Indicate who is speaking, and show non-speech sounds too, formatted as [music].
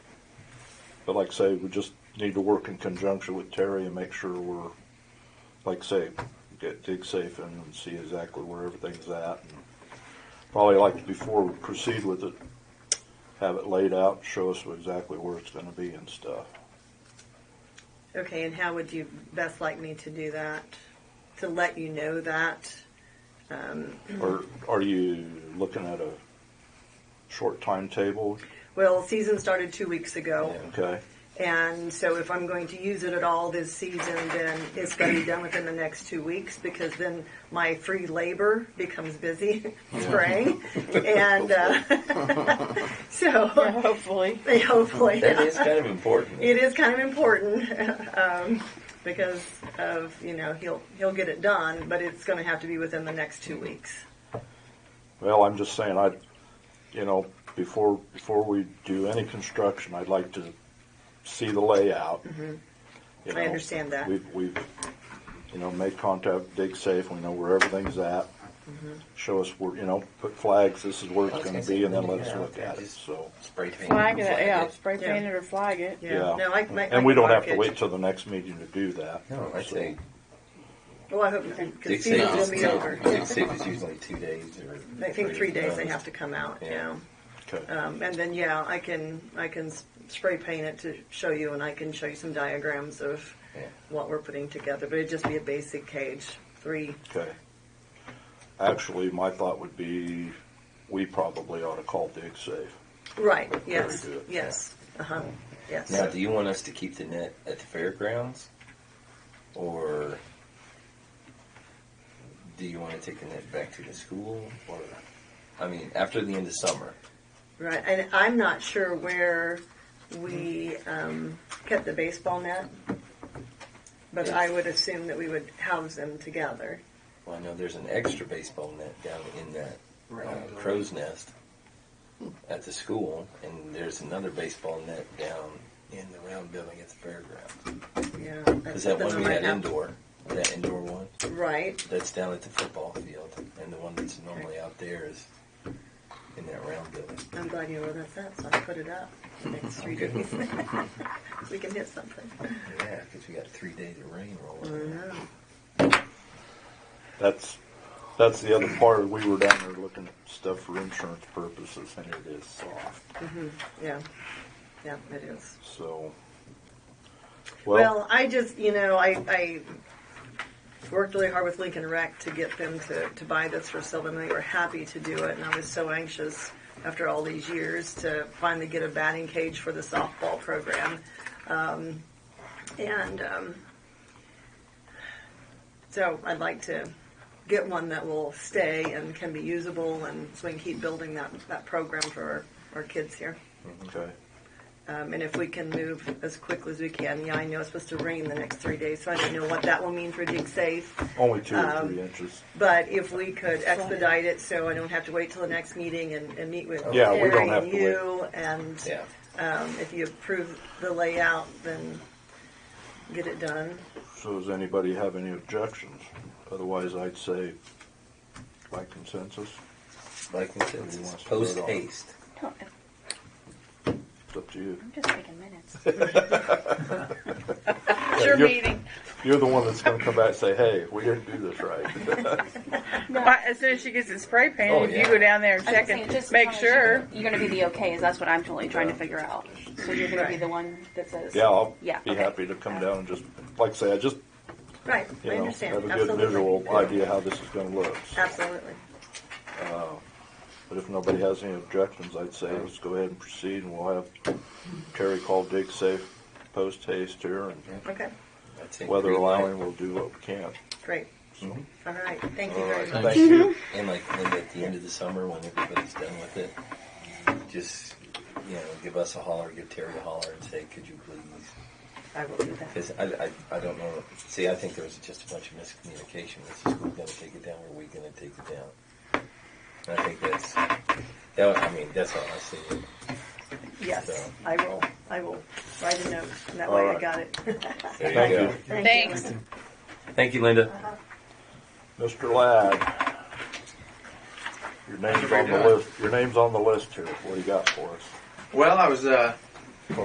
Speaker 1: But like I say, we just need to work in conjunction with Terry and make sure we're, like I say, get dig safe in and see exactly where everything's at. and Probably like before we proceed with it, have it laid out, show us exactly where it's gonna be and stuff.
Speaker 2: Okay, and how would you best like me to do that? To let you know that?
Speaker 1: Or are you looking at a short timetable?
Speaker 2: Well, season started two weeks ago.
Speaker 1: Okay,
Speaker 2: And so if I'm going to use it at all this season, then it's going to be done within the next two weeks because then my free labor becomes busy [laughs] spraying. and uh, [laughs] so [laughs]
Speaker 3: Hopefully.
Speaker 2: hopefully.
Speaker 4: That is kind of important.
Speaker 2: It is kind of important [laughs] um, because of you know he'll he'll get it done, but it's going to have to be within the next two weeks.
Speaker 1: well, I'm just saying, I, you know, before, before we do any construction, I'd like to see the layout. You
Speaker 2: Mm-hmm.
Speaker 1: know,
Speaker 2: I understand that.
Speaker 1: We've, we've, you know, made contact, dig safe, we know where everything's at.
Speaker 2: Mm-hmm.
Speaker 1: Show us where, you know, put flags, this is where
Speaker 4: I
Speaker 1: it's
Speaker 4: was
Speaker 1: gonna
Speaker 4: gonna say,
Speaker 1: be, and then
Speaker 4: when
Speaker 1: let us
Speaker 4: you get out
Speaker 1: look
Speaker 4: there,
Speaker 1: at it,
Speaker 4: just-
Speaker 1: so.
Speaker 4: Spray paint.
Speaker 3: Flag it, yeah,
Speaker 4: it.
Speaker 3: spray
Speaker 2: Yeah.
Speaker 3: paint it or flag it.
Speaker 1: Yeah.
Speaker 2: No, I, I,
Speaker 1: And we don't have
Speaker 2: mark
Speaker 1: to
Speaker 2: it.
Speaker 1: wait till the next meeting to do that.
Speaker 4: No, I
Speaker 1: So,
Speaker 4: think
Speaker 2: Well, I hope because
Speaker 4: dig
Speaker 2: season
Speaker 4: safe
Speaker 2: will
Speaker 4: is,
Speaker 2: be over.
Speaker 4: dig safe is usually two days or.
Speaker 2: I think three days they have to come out. Yeah.
Speaker 4: Yeah.
Speaker 1: Okay.
Speaker 2: Um, and then yeah, I can I can s- spray paint it to show you, and I can show you some diagrams of
Speaker 4: Yeah.
Speaker 2: what we're putting together. But it'd just be a basic cage, three.
Speaker 1: Okay. Actually, my thought would be, we probably ought to call Dig Safe.
Speaker 2: Right. Yes.
Speaker 1: good, yeah.
Speaker 2: Yes. Uh huh. Yes.
Speaker 4: Now, do you want us to keep the net at the fairgrounds? Or do you want to take the net back to the school? Or, I mean, after the end of summer?
Speaker 2: Right, and I'm not sure where we um, kept the baseball net, but I would assume that we would house them together.
Speaker 4: Well, I know there's an extra baseball net down in that uh, crow's nest at the school, and there's another baseball net down in the round building at the fairgrounds.
Speaker 2: Yeah, that's
Speaker 4: Because that
Speaker 2: something
Speaker 4: one we
Speaker 2: I might
Speaker 4: had
Speaker 2: have-
Speaker 4: indoor, that indoor one,
Speaker 2: Right,
Speaker 4: that's down at the football field, and the one that's normally out there is in that round building.
Speaker 2: I'm glad you know where that's at, so I put it up the next three days. [laughs] we can hit something.
Speaker 4: Yeah, because we got three days of rain
Speaker 2: I
Speaker 4: rolling. in.
Speaker 2: know.
Speaker 1: That's, that's the other part, we were down there looking at stuff for insurance purposes, and it is soft,
Speaker 2: Yeah, yeah, it is.
Speaker 1: so.
Speaker 2: Well, I just, you know, I, I worked really hard with Lincoln Rec to get them to, to buy this for Sylvan. They were happy to do it, and I was so anxious after all these years to finally get a batting cage for the softball program. Um, and um, so I'd like to get one that will stay and can be usable, and so we can keep building that, that program for our, our kids here.
Speaker 1: Okay,
Speaker 2: Um, and if we can move as quickly as we can, yeah, I know it's supposed to rain the next three days, so I don't know what that will mean for dig safe.
Speaker 1: only two or
Speaker 2: Um,
Speaker 1: three inches.
Speaker 2: But if we could expedite it, so I don't have to wait till the next meeting and, and meet with
Speaker 1: Yeah, we don't
Speaker 2: Terry
Speaker 1: have
Speaker 2: and
Speaker 1: to
Speaker 2: you, and
Speaker 4: Yeah.
Speaker 2: um, if you approve the layout, then get it done.
Speaker 1: So does anybody have any objections? Otherwise, I'd say by consensus,
Speaker 4: Like I said,
Speaker 1: Everyone
Speaker 4: it's
Speaker 1: wants to
Speaker 4: post
Speaker 1: vote on it.
Speaker 4: haste.
Speaker 5: Don't-
Speaker 1: it's up to
Speaker 2: [laughs]
Speaker 1: you.
Speaker 5: I'm just taking minutes.
Speaker 1: It's
Speaker 5: your meeting.
Speaker 1: You're the one that's gonna come back and say, hey, we didn't do this
Speaker 2: [laughs]
Speaker 1: right.
Speaker 3: But as soon as she gets it spray painted,
Speaker 4: Oh,
Speaker 3: if you
Speaker 4: yeah.
Speaker 3: go down there and
Speaker 5: I'm
Speaker 3: check
Speaker 5: saying,
Speaker 3: it,
Speaker 5: just
Speaker 3: make
Speaker 5: wanna-
Speaker 3: sure.
Speaker 5: You're gonna be the okay, is that's what I'm totally trying to figure out. So you're gonna be the one that says.
Speaker 1: Yeah, I'll
Speaker 5: Yeah,
Speaker 1: be
Speaker 5: okay.
Speaker 1: happy to come down and just, like I say, I just
Speaker 2: Right, I
Speaker 1: you know,
Speaker 2: understand,
Speaker 1: have a good
Speaker 2: absolutely.
Speaker 1: visual idea how this is gonna look.
Speaker 2: Absolutely.
Speaker 1: But if nobody has any objections, I'd say let's go ahead and proceed, and we'll have Terry call Dig Safe post haste here, and
Speaker 2: Okay,
Speaker 4: I'd say
Speaker 1: weather
Speaker 4: green light.
Speaker 1: allowing, we'll do what we can.
Speaker 2: great. All right, thank you
Speaker 4: All
Speaker 2: very
Speaker 4: right,
Speaker 2: much.
Speaker 1: Thank you.
Speaker 4: And like then at the end of the summer, when everybody's done with it, just you know, give us a holler, give Terry a holler, and say, "Could you please?"
Speaker 5: I will do that.
Speaker 4: Because I, I, I don't know. See, I think there was just a bunch of miscommunication. Is the school going to take it down, or are we going to take it down? And I think that's that. was- I mean, that's all I see.
Speaker 2: Yes, I will, I will write a note, and that way
Speaker 1: All
Speaker 2: I
Speaker 1: right.
Speaker 2: got it. [laughs]
Speaker 4: There you
Speaker 1: Thank
Speaker 4: go.
Speaker 1: you.
Speaker 3: Thanks.
Speaker 4: Thank you, Linda.
Speaker 1: Mr. Ladd, your name's on the list, your name's on the list here, what do you got for us?
Speaker 6: Well, I was uh,